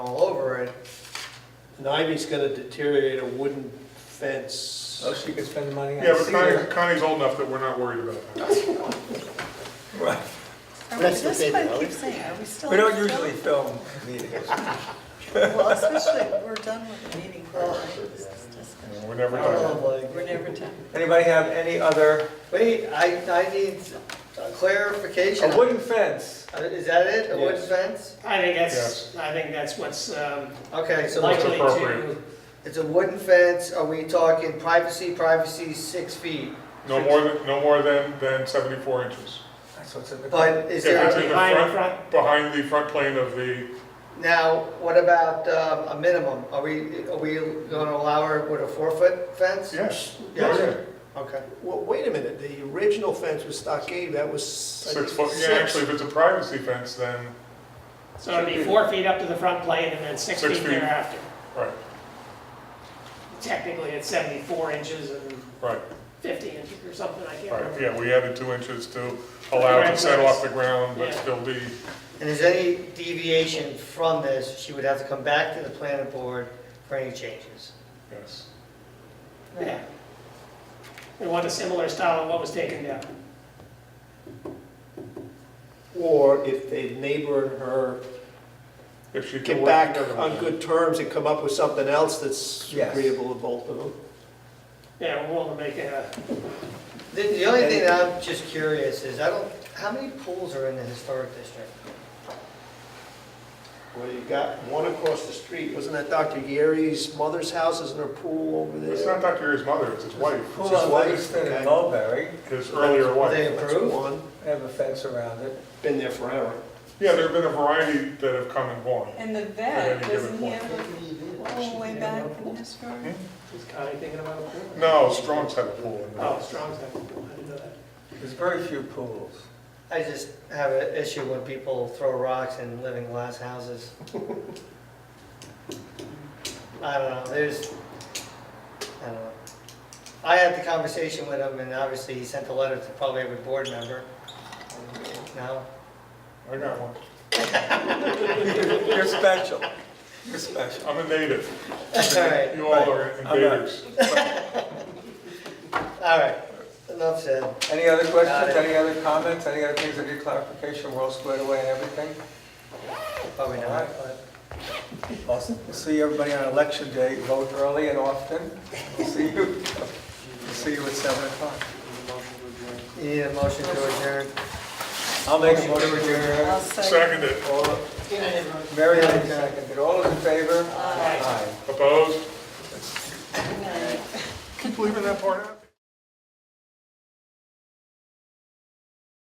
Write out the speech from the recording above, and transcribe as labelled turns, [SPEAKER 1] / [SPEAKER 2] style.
[SPEAKER 1] all over it.
[SPEAKER 2] An ivy's gonna deteriorate a wooden fence.
[SPEAKER 3] Oh, she could spend the money on
[SPEAKER 4] Yeah, but
[SPEAKER 3] cedar.
[SPEAKER 4] Connie, Connie's old enough that we're not worried about that.
[SPEAKER 5] Are we,
[SPEAKER 2] That's the
[SPEAKER 5] this is
[SPEAKER 2] thing,
[SPEAKER 5] what I
[SPEAKER 2] Ellie.
[SPEAKER 5] keep saying, are we still?
[SPEAKER 3] We don't
[SPEAKER 5] still-
[SPEAKER 3] usually film meetings.
[SPEAKER 5] Well, especially, we're done with the meeting, right? This is just-
[SPEAKER 4] We're never done.
[SPEAKER 2] Oh, my
[SPEAKER 5] We're never done.
[SPEAKER 3] Anybody have any other,
[SPEAKER 1] Wait, I, I need a clarification.
[SPEAKER 3] a wooden fence?
[SPEAKER 1] Uh, Is that it, a wooden
[SPEAKER 2] Yes.
[SPEAKER 1] fence?
[SPEAKER 6] I think that's, I think that's what's um,
[SPEAKER 1] Okay, so
[SPEAKER 4] Like-
[SPEAKER 6] likely
[SPEAKER 4] appropriate.
[SPEAKER 6] to,
[SPEAKER 1] it's a wooden fence, are we talking privacy, privacy six feet?
[SPEAKER 4] No more than, no more than, than seventy-four inches.
[SPEAKER 3] That's what's in the.
[SPEAKER 1] But is
[SPEAKER 4] If it's
[SPEAKER 1] there,
[SPEAKER 4] in the
[SPEAKER 6] Behind the
[SPEAKER 4] front, behind the front plane of the,
[SPEAKER 1] now, what about um, a minimum? Are we, are we gonna allow her with a four-foot fence?
[SPEAKER 4] yes.
[SPEAKER 1] Yes.
[SPEAKER 4] okay.
[SPEAKER 1] Okay,
[SPEAKER 2] Well, wait a minute, the original fence was stockade, that was.
[SPEAKER 4] Six foot, yeah, actually, if it's a privacy fence, then,
[SPEAKER 6] so it'd be four feet up to the front plane and then six
[SPEAKER 4] Six
[SPEAKER 6] feet
[SPEAKER 4] feet.
[SPEAKER 6] thereafter.
[SPEAKER 4] right,
[SPEAKER 6] Technically, it's 74 inches and
[SPEAKER 4] right,
[SPEAKER 6] 50 inches or something, I can't
[SPEAKER 4] right.
[SPEAKER 6] remember.
[SPEAKER 4] Yeah, we added two inches to allow it to set off the ground, but
[SPEAKER 6] Yeah.
[SPEAKER 4] still be,
[SPEAKER 1] and is any deviation from this, she would have to come back to the planning board for any changes?
[SPEAKER 4] yes.
[SPEAKER 6] Yeah. We want a similar style of what was taken down.
[SPEAKER 2] Or if the neighbor and her
[SPEAKER 4] If she can
[SPEAKER 2] get
[SPEAKER 4] work
[SPEAKER 2] back
[SPEAKER 4] together with
[SPEAKER 2] on
[SPEAKER 4] that.
[SPEAKER 2] good terms and come up with something else that's
[SPEAKER 3] Yes.
[SPEAKER 2] agreeable to both of them.
[SPEAKER 6] Yeah, we're willing to make a,
[SPEAKER 1] The, the only thing that I'm just curious is, I don't, how many pools are in the historic district?
[SPEAKER 2] Well, you got one across the street, wasn't that Dr. Yeri's mother's house, isn't her pool over
[SPEAKER 4] It's
[SPEAKER 2] there?
[SPEAKER 4] not Dr. Year's mother, it's his wife,
[SPEAKER 3] Pool
[SPEAKER 2] just
[SPEAKER 3] on
[SPEAKER 2] white,
[SPEAKER 3] Livingston
[SPEAKER 2] okay.
[SPEAKER 3] and Mulberry,
[SPEAKER 4] his earlier wife.
[SPEAKER 1] They
[SPEAKER 2] That's
[SPEAKER 1] approve?
[SPEAKER 2] one,
[SPEAKER 3] They have a fence around it.
[SPEAKER 2] been there forever.
[SPEAKER 4] Yeah, there have been a variety that have come and gone.
[SPEAKER 5] And the
[SPEAKER 4] At any
[SPEAKER 5] vet,
[SPEAKER 4] given
[SPEAKER 5] doesn't he
[SPEAKER 4] point.
[SPEAKER 5] have a pool way back in his room?
[SPEAKER 6] is Connie thinking about a pool?
[SPEAKER 4] No, Strong's had a pool in
[SPEAKER 6] Oh,
[SPEAKER 4] there.
[SPEAKER 6] Strong's had a pool, I didn't know that.
[SPEAKER 3] There's very few pools.
[SPEAKER 1] I just have an issue when people throw rocks and live in glass houses. I don't know, there's, I don't know. I had the conversation with him, and obviously he sent a letter to probably every board member. No?
[SPEAKER 4] I got one.
[SPEAKER 3] You're special. You're special.
[SPEAKER 4] I'm a native.
[SPEAKER 1] All right,
[SPEAKER 4] You all are
[SPEAKER 3] I'm not.
[SPEAKER 4] invaders.
[SPEAKER 1] all right, enough said.
[SPEAKER 3] Any other
[SPEAKER 1] Got
[SPEAKER 3] questions,
[SPEAKER 1] it.
[SPEAKER 3] any other comments, any other things that need clarification? We're all squared away and everything?
[SPEAKER 1] Probably
[SPEAKER 3] All right.
[SPEAKER 1] not, but.
[SPEAKER 3] Awesome. We'll see everybody on election day. Vote early and often. We'll see you, we'll see you at 7 o'clock.
[SPEAKER 1] You need a motion to adjourn.
[SPEAKER 3] I'll make a
[SPEAKER 1] Motion to
[SPEAKER 3] motion to adjourn.
[SPEAKER 5] I'll second.
[SPEAKER 4] Second it.
[SPEAKER 3] All- Mary Lynn seconded. All those in favor? Aye.
[SPEAKER 4] Opposed?
[SPEAKER 5] Good night.
[SPEAKER 4] Keep leaving that part out.